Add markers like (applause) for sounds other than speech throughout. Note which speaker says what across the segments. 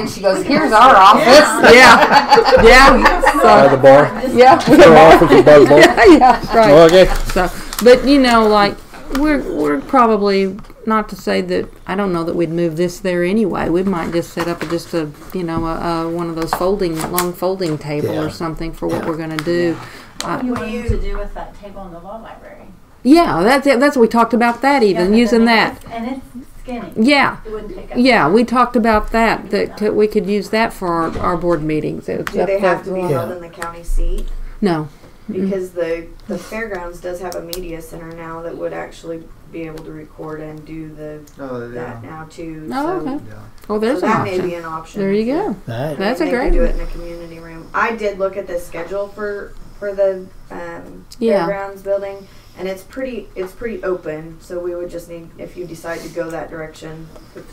Speaker 1: And she goes, "Here's our office."
Speaker 2: Yeah, yeah.
Speaker 3: By the
Speaker 2: So
Speaker 3: bar.
Speaker 2: yeah, we
Speaker 3: Their
Speaker 2: are.
Speaker 3: office is by the bar.
Speaker 2: (laughs) yeah, yeah, right.
Speaker 3: Okay.
Speaker 2: So, but you know, like we're we're probably not to say that I don't know that we'd move this there anyway. We might just set up just a you know a, a one of those folding long folding table
Speaker 3: Yeah.
Speaker 2: or something for what
Speaker 3: Yeah.
Speaker 2: we're gonna do.
Speaker 4: What do you want to do with that table in the law library?
Speaker 2: Yeah, that's it. That's we talked about that even
Speaker 4: Yeah,
Speaker 2: using
Speaker 4: but I
Speaker 2: that.
Speaker 4: mean, it's- And it's skinny.
Speaker 2: Yeah.
Speaker 4: It wouldn't take up.
Speaker 2: Yeah, we talked about that. That could, we could use that for our, our board meetings. It's
Speaker 5: Do
Speaker 2: up
Speaker 5: they have to
Speaker 2: there.
Speaker 5: be held in the county seat?
Speaker 2: No. Mm-hmm.
Speaker 5: Because the, the fairgrounds does have a media center now that would actually be able to record and do the,
Speaker 6: Oh,
Speaker 5: that
Speaker 6: yeah.
Speaker 5: now too.
Speaker 2: Oh,
Speaker 5: So-
Speaker 2: okay.
Speaker 6: Yeah.
Speaker 2: Oh,
Speaker 5: So
Speaker 2: there's an
Speaker 5: that may
Speaker 2: option.
Speaker 5: be an option.
Speaker 2: There you go.
Speaker 3: That,
Speaker 2: That's a
Speaker 5: They could
Speaker 2: great
Speaker 5: Do
Speaker 2: one.
Speaker 5: it in a community room. I did look at the schedule for, for the, um,
Speaker 2: Yeah.
Speaker 5: fairgrounds building. And it's pretty, it's pretty open, so we would just need, if you decide to go that direction,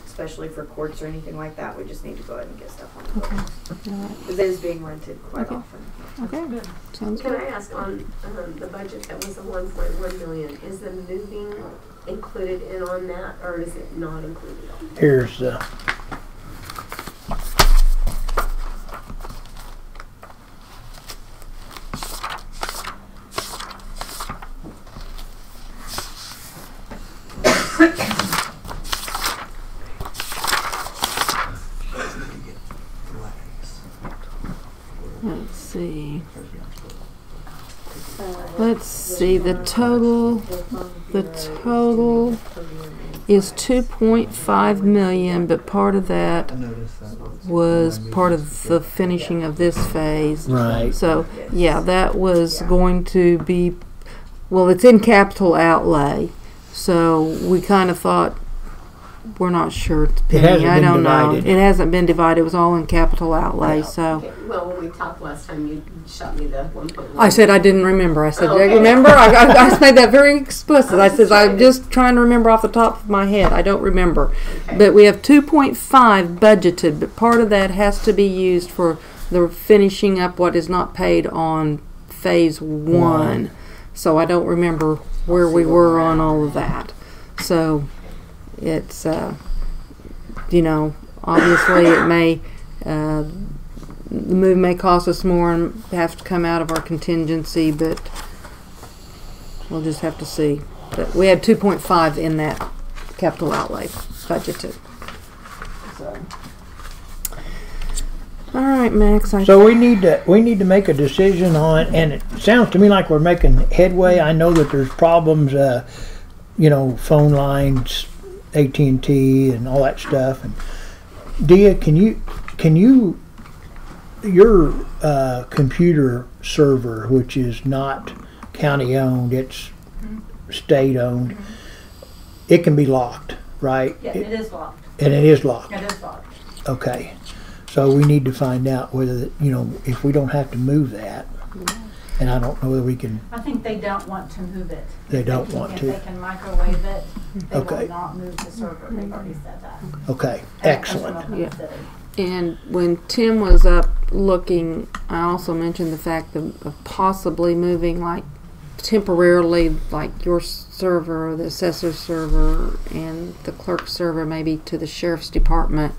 Speaker 5: especially for courts or anything like that, we just need to go ahead and get stuff on the books. Because it is being rented quite
Speaker 2: Okay.
Speaker 5: often.
Speaker 2: Okay. Sounds
Speaker 7: Can
Speaker 2: good.
Speaker 7: I ask on um, the budget that was the one point one million, is the moving included in on that or is it not included?
Speaker 8: Here's the,
Speaker 2: Let's see. Let's see. The total. The total is 2.5 million, but part of that
Speaker 6: I noticed that.
Speaker 2: was part of the finishing of this phase.
Speaker 8: right.
Speaker 2: So, yeah, that was going to be, well, it's in capital outlay. So we kind of thought, we're not sure. It's
Speaker 8: It
Speaker 2: penny.
Speaker 8: hasn't
Speaker 2: I
Speaker 8: been
Speaker 2: don't know.
Speaker 8: divided.
Speaker 2: It hasn't been divided. It was all in capital outlay. So
Speaker 7: Okay, Well, when we talked last time, you shot me the one point one.
Speaker 2: I said I didn't remember. I said,
Speaker 7: Okay.
Speaker 2: "Yeah, remember? I, I, I made that very explicit. I says I'm just trying to remember off the top of my head. I don't remember. But we have 2.5 budgeted, but part of that has to be used for the finishing up what is not paid on phase one. So I don't remember where we were on all of that. So it's, uh, you know, obviously it may, uh, the move may cost us more and have to come out of our contingency, but we'll just have to see. But we had 2.5 in that capital outlay budgeted. So. All right, Max. I
Speaker 8: So we need to, we need to make a decision on, and it sounds to me like we're making headway. I know that there's problems, uh, you know, phone lines, AT&T and all that stuff. And Dia, can you, can you, your, uh, computer server, which is not county owned, it's state owned, it can be locked, right?
Speaker 4: Yeah, it is locked.
Speaker 8: And it is locked.
Speaker 4: It is locked.
Speaker 8: Okay, so we need to find out whether, you know, if we don't have to move that. And I don't know whether we can,
Speaker 4: I think they don't want to move it.
Speaker 8: they don't want
Speaker 4: If
Speaker 8: to.
Speaker 4: they can microwave it, they
Speaker 8: Okay.
Speaker 4: will not move the server. They've already said that. And
Speaker 8: Okay,
Speaker 4: that comes
Speaker 8: excellent.
Speaker 4: from
Speaker 2: Yeah.
Speaker 4: the city.
Speaker 2: And when Tim was up looking, I also mentioned the fact of, of possibly moving like temporarily, like your server, the assessor server, and the clerk server maybe to the sheriff's department.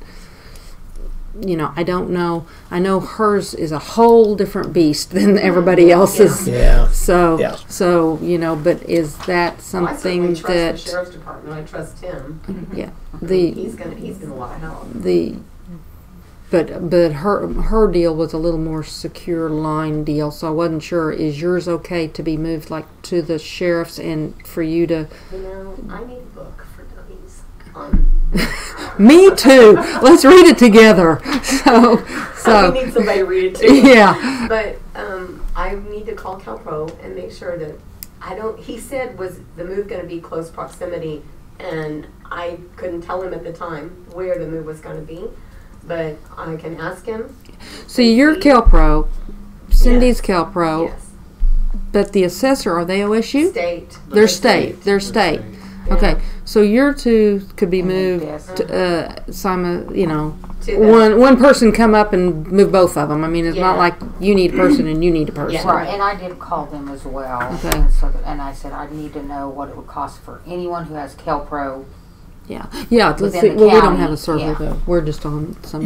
Speaker 2: You know, I don't know. I know hers is a whole different beast (laughs) than everybody else's.
Speaker 8: Yeah,
Speaker 2: So,
Speaker 8: Yeah.
Speaker 2: so you know, but is that
Speaker 7: Well, I
Speaker 2: something
Speaker 7: certainly trust the
Speaker 2: that
Speaker 7: sheriff's department. I trust him.
Speaker 2: the
Speaker 7: He's gonna, he's gonna want to help.
Speaker 2: the but but her her deal was a little more secure line deal so i wasn't sure is yours okay to be moved like to the sheriff's and for you to
Speaker 7: You know, I need a book for dummies on,
Speaker 2: me too let's read it together (laughs) so
Speaker 7: (laughs) I
Speaker 2: so
Speaker 7: need somebody to read it to.
Speaker 2: (laughs) yeah
Speaker 7: But um, I need to call CalPro and make sure that I don't. He said was the move going to be close proximity, and I couldn't tell him at the time where the move was going to be. But I can ask him.
Speaker 2: so you're calpro cindy's calpro
Speaker 7: Yes.
Speaker 2: but the assessor are they osu
Speaker 7: State.
Speaker 2: they're state they're state okay so your two could be moved
Speaker 1: Yes.
Speaker 2: to, uh simon you know
Speaker 7: To the,
Speaker 2: one one person come up and move both of them. I mean, it's not
Speaker 7: Yeah.
Speaker 2: like you need a person and you need a person.
Speaker 1: Right, and I did call them as well.
Speaker 2: Okay.
Speaker 1: And, so, and I said, I need to know what it would cost for anyone who has Kelpro
Speaker 2: Yeah, yeah. Let's
Speaker 1: Within
Speaker 2: see.
Speaker 1: the
Speaker 2: Well, we don't
Speaker 1: county,
Speaker 2: have a survey
Speaker 1: yeah.
Speaker 2: though. We're just on some.